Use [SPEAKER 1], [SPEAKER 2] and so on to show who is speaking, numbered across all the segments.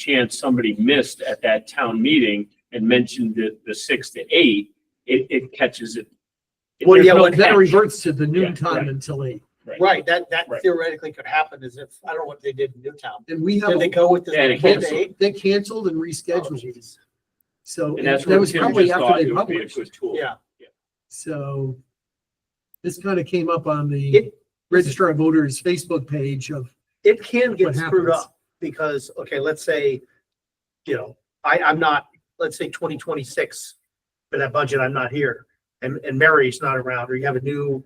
[SPEAKER 1] chance somebody missed at that town meeting and mentioned the, the six to eight, it, it catches it.
[SPEAKER 2] Well,
[SPEAKER 1] There's
[SPEAKER 2] yeah,
[SPEAKER 1] no
[SPEAKER 2] well, that
[SPEAKER 1] catch.
[SPEAKER 2] reverts to the noon
[SPEAKER 1] Yeah,
[SPEAKER 2] time
[SPEAKER 1] right.
[SPEAKER 2] until eight.
[SPEAKER 3] Right, that, that
[SPEAKER 1] Right.
[SPEAKER 3] theoretically could happen is if, I don't know what they did in Newtown.
[SPEAKER 2] And we have,
[SPEAKER 3] Did they
[SPEAKER 2] a-
[SPEAKER 3] go with the?
[SPEAKER 1] Yeah, they
[SPEAKER 3] did
[SPEAKER 1] canceled.
[SPEAKER 3] they-
[SPEAKER 2] they canceled and
[SPEAKER 3] Oh,
[SPEAKER 2] rescheduled these.
[SPEAKER 3] geez.
[SPEAKER 2] So
[SPEAKER 1] And that's
[SPEAKER 2] that
[SPEAKER 1] where
[SPEAKER 2] was
[SPEAKER 1] Tim
[SPEAKER 2] probably
[SPEAKER 1] just thought
[SPEAKER 2] after they
[SPEAKER 1] it would be a
[SPEAKER 2] published.
[SPEAKER 1] good tool.
[SPEAKER 3] Yeah,
[SPEAKER 2] So this kind of came up on the
[SPEAKER 3] It-
[SPEAKER 2] Registrar of Voters Facebook page of,
[SPEAKER 3] it can
[SPEAKER 2] What
[SPEAKER 3] get screwed
[SPEAKER 2] happens?
[SPEAKER 3] up because, okay, let's say, you know, I, I'm not, let's say twenty twenty-six for that budget, I'm not here. And, and Mary's not around, or you have a new,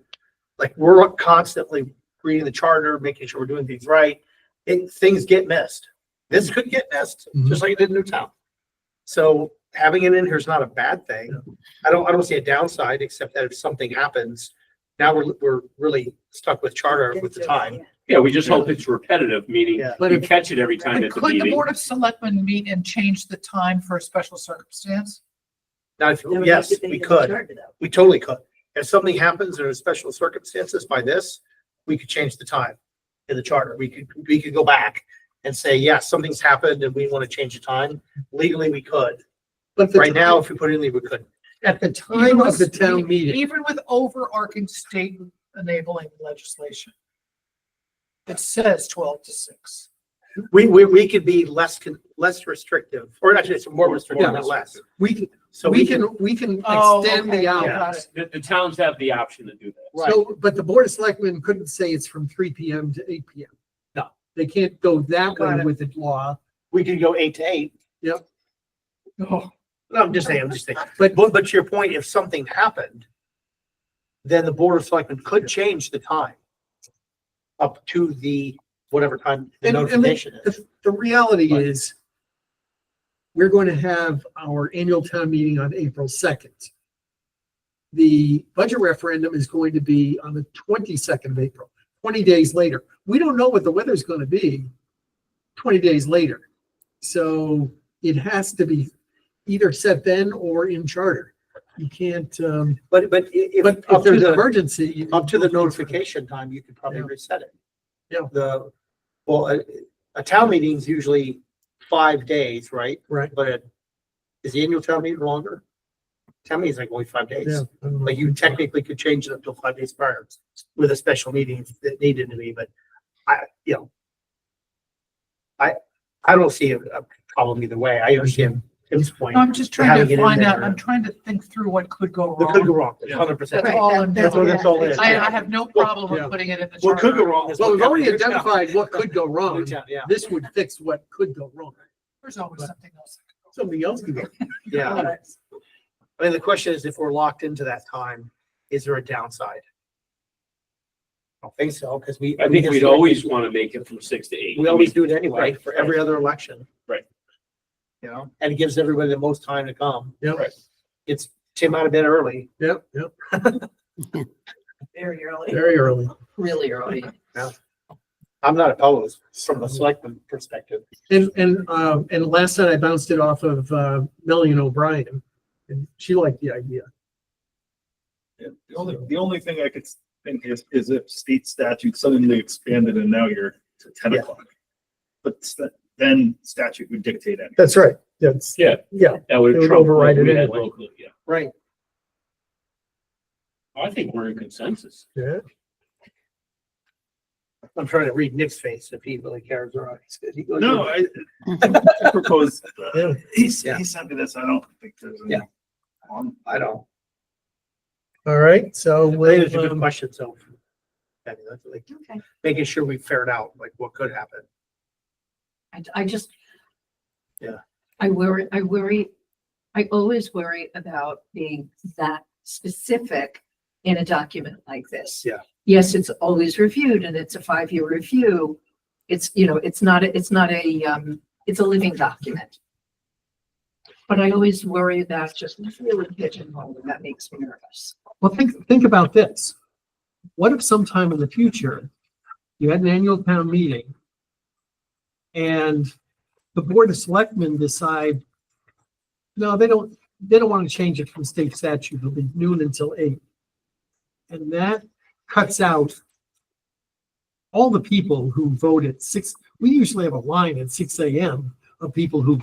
[SPEAKER 3] like, we're constantly reading the charter, making sure we're doing things right. And things get missed. This could get missed,
[SPEAKER 2] Mm-hmm.
[SPEAKER 3] just like it did in Newtown. So having it in here is not a bad thing. I don't, I don't see a downside, except that if something happens, now we're, we're really stuck with charter with the time.
[SPEAKER 1] Yeah, we just hope it's repetitive, meaning
[SPEAKER 3] Yeah.
[SPEAKER 2] but
[SPEAKER 1] you
[SPEAKER 2] if,
[SPEAKER 1] catch it every time at the
[SPEAKER 4] Could the
[SPEAKER 1] meeting.
[SPEAKER 4] Board of Selectmen meet and change the time for a special circumstance?
[SPEAKER 3] Now, if- yes, we could. We totally could. If something happens or special circumstances by this, we could change the time in the charter. We could, we could go back and say, yes, something's happened and we want to change the time. Legally, we could.
[SPEAKER 2] but the
[SPEAKER 3] Right now,
[SPEAKER 2] time-
[SPEAKER 3] if we put it in, there, we couldn't.
[SPEAKER 2] at the time of the town meeting,
[SPEAKER 4] Even with overarching state enabling legislation. It says twelve to six.
[SPEAKER 3] We, we, we could be less, con- less restrictive, or actually, it's more restrictive, not less.
[SPEAKER 2] we can,
[SPEAKER 3] So
[SPEAKER 2] we can, we can
[SPEAKER 4] Oh,
[SPEAKER 2] extend the
[SPEAKER 4] out.
[SPEAKER 2] hours.
[SPEAKER 3] Oh, yeah.
[SPEAKER 1] The, the towns have the option to do that.
[SPEAKER 3] Right.
[SPEAKER 2] So, but the Board of Selectmen couldn't say it's from three PM to eight PM.
[SPEAKER 3] No.
[SPEAKER 2] They can't go that
[SPEAKER 3] Got
[SPEAKER 2] way
[SPEAKER 3] it.
[SPEAKER 2] with the law,
[SPEAKER 3] We could go eight to eight.
[SPEAKER 4] Oh,
[SPEAKER 3] No, I'm just saying, I'm just saying.
[SPEAKER 2] but
[SPEAKER 3] But, but to your point, if something happened, then the Board of Selectmen could change the time up to the, whatever time the
[SPEAKER 2] And- and the-
[SPEAKER 3] notification is.
[SPEAKER 2] the, the reality
[SPEAKER 3] Right.
[SPEAKER 2] is we're going to have our annual town meeting on April second. The budget referendum is going to be on the twenty-second of April, twenty days later. We don't know what the weather's gonna be twenty days later. So it has to be either set then or in charter. You can't, um,
[SPEAKER 3] But, but i- if,
[SPEAKER 2] But if
[SPEAKER 3] up to
[SPEAKER 2] there's an
[SPEAKER 3] the,
[SPEAKER 2] emergency.
[SPEAKER 3] up to the notification time, you could probably
[SPEAKER 2] Yeah.
[SPEAKER 3] reset it.
[SPEAKER 2] Yeah.
[SPEAKER 3] The, well, a, a town meeting's usually five days, right?
[SPEAKER 2] Right.
[SPEAKER 3] But it- is the annual town meeting longer? Town meeting's like only five
[SPEAKER 2] Yeah.
[SPEAKER 3] days.
[SPEAKER 2] I don't know.
[SPEAKER 3] Like you technically could change it up to five days prior with a special meeting if it needed to be, but I, you know. I, I don't see a a problem either way. I understand Tim's point.
[SPEAKER 4] I'm just trying
[SPEAKER 3] Having it
[SPEAKER 4] to
[SPEAKER 3] in
[SPEAKER 4] find out,
[SPEAKER 3] there.
[SPEAKER 4] I'm trying to think through what could go
[SPEAKER 3] What could go
[SPEAKER 4] wrong.
[SPEAKER 3] wrong,
[SPEAKER 1] Yeah.
[SPEAKER 3] hundred percent.
[SPEAKER 4] That's all I'm
[SPEAKER 3] That's what
[SPEAKER 4] doing.
[SPEAKER 3] it's all is.
[SPEAKER 4] I, I have no problem
[SPEAKER 2] Yeah.
[SPEAKER 4] with putting it in the
[SPEAKER 3] What could go
[SPEAKER 4] charter.
[SPEAKER 3] wrong is.
[SPEAKER 2] Well,
[SPEAKER 3] what
[SPEAKER 2] we've already
[SPEAKER 3] happened.
[SPEAKER 2] identified what could go wrong.
[SPEAKER 3] Yeah, yeah,
[SPEAKER 2] This would fix what could go wrong.
[SPEAKER 4] There's always something else.
[SPEAKER 2] Something else could go.
[SPEAKER 3] yeah. I mean, the question is if we're locked into that time, is there a downside? I don't think so, because we.
[SPEAKER 1] I think we'd always want to make it from six to eight.
[SPEAKER 3] We always do it anyway
[SPEAKER 1] Right,
[SPEAKER 3] for every other election.
[SPEAKER 1] Right.
[SPEAKER 3] You know, and it gives everybody the most time to come.
[SPEAKER 2] Yep,
[SPEAKER 3] It's Tim out of bed early.
[SPEAKER 2] yep, yep,
[SPEAKER 4] Very early.
[SPEAKER 2] very early.
[SPEAKER 4] Really early.
[SPEAKER 3] I'm not opposed from a selectman perspective.
[SPEAKER 2] And, and, um, and last night I bounced it off of, uh, Melanie O'Brien and she liked the idea.
[SPEAKER 5] Yeah, The only, the only thing I could think is, is if state statute suddenly expanded and now you're to ten
[SPEAKER 2] Yeah.
[SPEAKER 5] o'clock. But st- then statute would dictate it.
[SPEAKER 2] That's right. That's,
[SPEAKER 1] Yeah,
[SPEAKER 2] yeah.
[SPEAKER 1] that would.
[SPEAKER 2] It would
[SPEAKER 1] trump what
[SPEAKER 2] override it
[SPEAKER 1] we had
[SPEAKER 2] anyway.
[SPEAKER 1] locally, yeah.
[SPEAKER 3] Right.
[SPEAKER 1] I think we're in consensus.
[SPEAKER 2] Yeah.
[SPEAKER 3] I'm trying to read Nick's face if he really cares or not. He goes,
[SPEAKER 5] No, I I propose, uh,
[SPEAKER 2] Yeah.
[SPEAKER 5] he, s-
[SPEAKER 3] Yeah.
[SPEAKER 5] he sent me this, I don't think there's. any
[SPEAKER 3] Yeah.
[SPEAKER 5] harm.
[SPEAKER 3] I don't.
[SPEAKER 2] All right. So
[SPEAKER 3] I think it's a
[SPEAKER 2] we'll,
[SPEAKER 3] good
[SPEAKER 2] um,
[SPEAKER 3] question, so. I mean, that's like,
[SPEAKER 6] Okay,
[SPEAKER 3] making sure we ferret out like what could happen.
[SPEAKER 6] I, I just.
[SPEAKER 3] Yeah.
[SPEAKER 6] I worry, I worry, I always worry about being that specific in a document like this.
[SPEAKER 3] Yeah.
[SPEAKER 6] Yes, it's always reviewed and it's a five-year review. It's, you know, it's not, a- it's not a, um, it's a living document. But I always worry about just really pigeonholing, and that makes me nervous.
[SPEAKER 2] well, think, think about this. What if sometime in the future, you had an annual town meeting and the Board of Selectmen decide, no, they don't, they don't want to change it from state statute. It'll be noon until eight. And that cuts out all the people who vote at six, we usually have a line at six AM of people who've